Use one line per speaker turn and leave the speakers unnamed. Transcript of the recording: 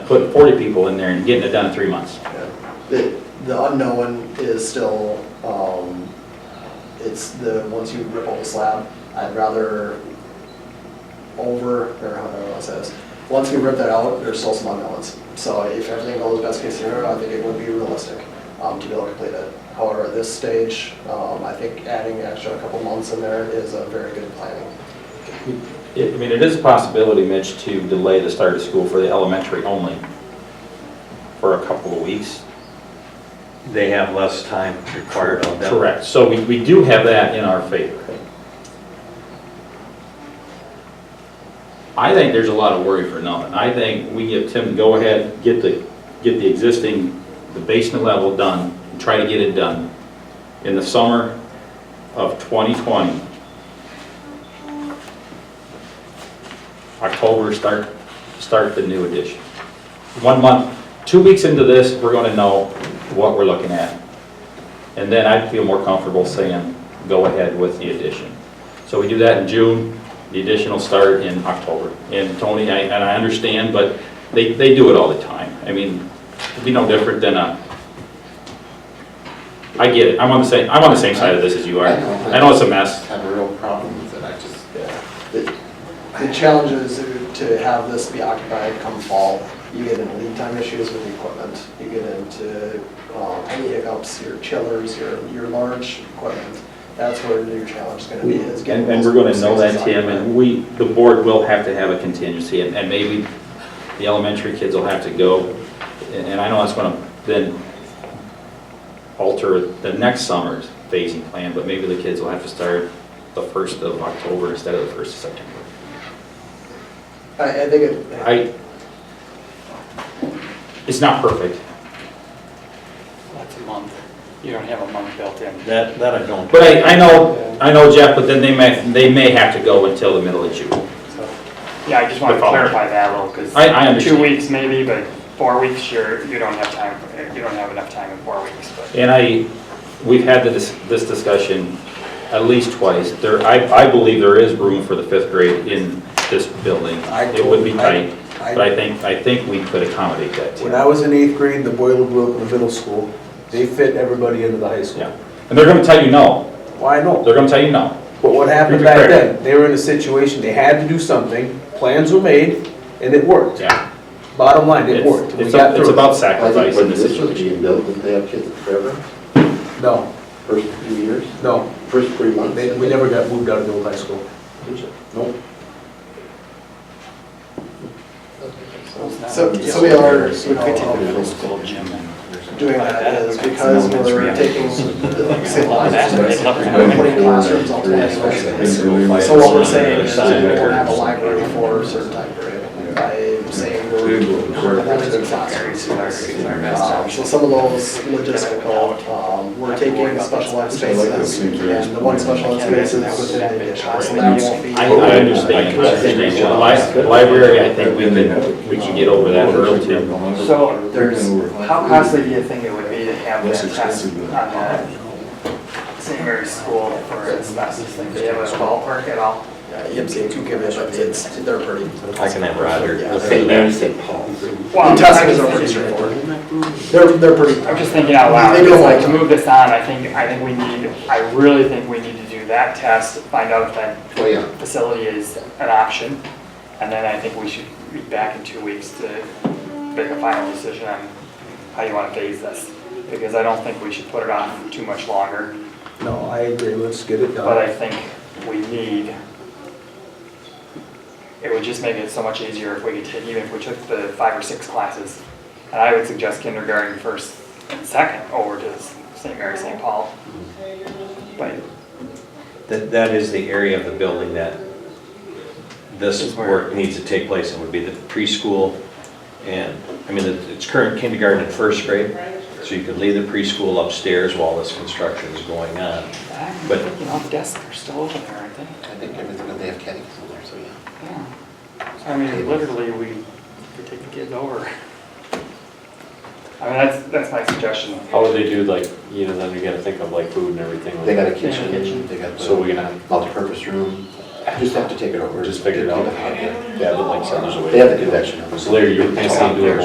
putting 40 people in there and getting it done in three months.
The, the unknown is still, um, it's the, once you rip up the slab, I'd rather over, or however I want to say this, once we rip that out, there's still some unknowns. So if everything goes best case scenario, I think it would be realistic, um, to be able to complete it. However, at this stage, um, I think adding extra a couple months in there is a very good planning.
It- I mean, it is a possibility, Mitch, to delay the start of school for the elementary only for a couple of weeks.
They have less time required of them.
Correct, so we, we do have that in our favor. I think there's a lot of worry for nothing. I think we give Tim, the go ahead, get the, get the existing, the basement level done, and try to get it done in the summer of 2020. October, start, start the new edition. One month, two weeks into this, we're gonna know what we're looking at. And then I'd feel more comfortable saying, go ahead with the addition. So we do that in June, the addition will start in October. And Tony, I- and I understand, but they, they do it all the time. I mean, it'd be no different than a, I get it, I'm on the same, I'm on the same side of this as you are.
I know.
I know it's a mess.
have a real problem with it, I just,
The the challenge is to have this be occupied come fall. You get into lead time issues with the equipment. You get into um, any hiccups, your chillers, your, your large equipment. That's where your challenge is going to be, is getting.
And, and we're gonna know that, Tim, and we, the board will have to have a contingency, and, and maybe the elementary kids will have to go, and, and I know that's gonna then alter the next summer's phasing plan, but maybe the kids will have to start the first of October instead of the first of September.
I, I think it.
I, it's not perfect,
That's a month. You don't have a month built in.
That, that I don't.
but I, I know, I know Jeff, but then they may, they may have to go until the middle of June.
So, Yeah, I just want to
The following.
clarify that a little, because.
I- I understand.
Two weeks maybe, but four weeks, you're, you don't have time, you don't have enough time in four weeks, but.
And I, we've had this, this discussion at least twice. There, I, I believe there is room for the fifth grade in this building.
I
It would be
told- I-
tight,
I-
but I think, I think we could accommodate that
When
too.
I was in eighth grade, the boiler blew up in the middle school. They fit everybody into the high school.
Yeah. And they're gonna tell you no.
Well, I know,
They're gonna tell you no.
but what happened
Be
back
prepared.
then, they were in a situation, they had to do something, plans were made, and it worked.
Yeah.
Bottom line, it worked.
It's,
We
it's
got
a- it's
through
about
I
it.
think
sacrifice in
when
this
this was
situation.
being built, did they have kids forever,
No,
first few years,
no,
first three months?
they, we never got moved out of the old high school.
Did you?
Nope.
So, so we are, you know, doing that is because we're taking the same classes. We're putting classrooms all together. So what we're saying is we won't have a library for a certain time period by saying we're limiting classrooms. Um,
Uh,
So some of those logistical, um, we're taking specialized spaces and the one specialized space is within the addition. So that won't be.
I, I understand. I understand. The li- the Library, I think we can, we can get over that early too.
So there's, how costly do you think it would be to have that test on the St. Mary's School for asbestos? Like, do you have a ballpark at all?
Yeah, EMC can give it, but it's, they're pretty.
I can have Roger.
Yeah,
look
St.
into that.
Mary's, St. Paul's.
The testings are pretty straightforward. They're, they're pretty.
I'm just thinking out loud,
They
it's
don't
like, to
like-
move this on, I think, I think we need, I really think we need to do that test, find out if that
Well, yeah,
facility is an option, and then I think we should be back in two weeks to make a final decision on how you want to phase this, because I don't think we should put it on too much longer,
No, I agree, let's get it
but I
done.
think we need, it would just make it so much easier if we could take, even if we took the five or six classes, and I would suggest kindergarten first and second over to St. Mary, St. Paul. But
That, that is the area of the building that this work needs to take place in, would be the preschool and, I mean, it- it's current kindergarten and first grade, so you could leave the preschool upstairs while this construction is going on.
I'm
But-
thinking all uh, the desks are still open there, aren't they?
I think everything, but they have caddies in there, so yeah.
Yeah. I mean, literally, we, we take the kids over. I mean, that's, that's my suggestion.
How would they do like, you know, then you gotta think of like food and everything. like
They got a
Yeah.
kitchen, they got
So we're
the
gonna
multi-purpose room, just have to take it over.
just figure it out.
Get- get the hot air.
Yeah, but like send those away.
They have the convection oven.
So Larry, you're
It's hot
basically doing
there.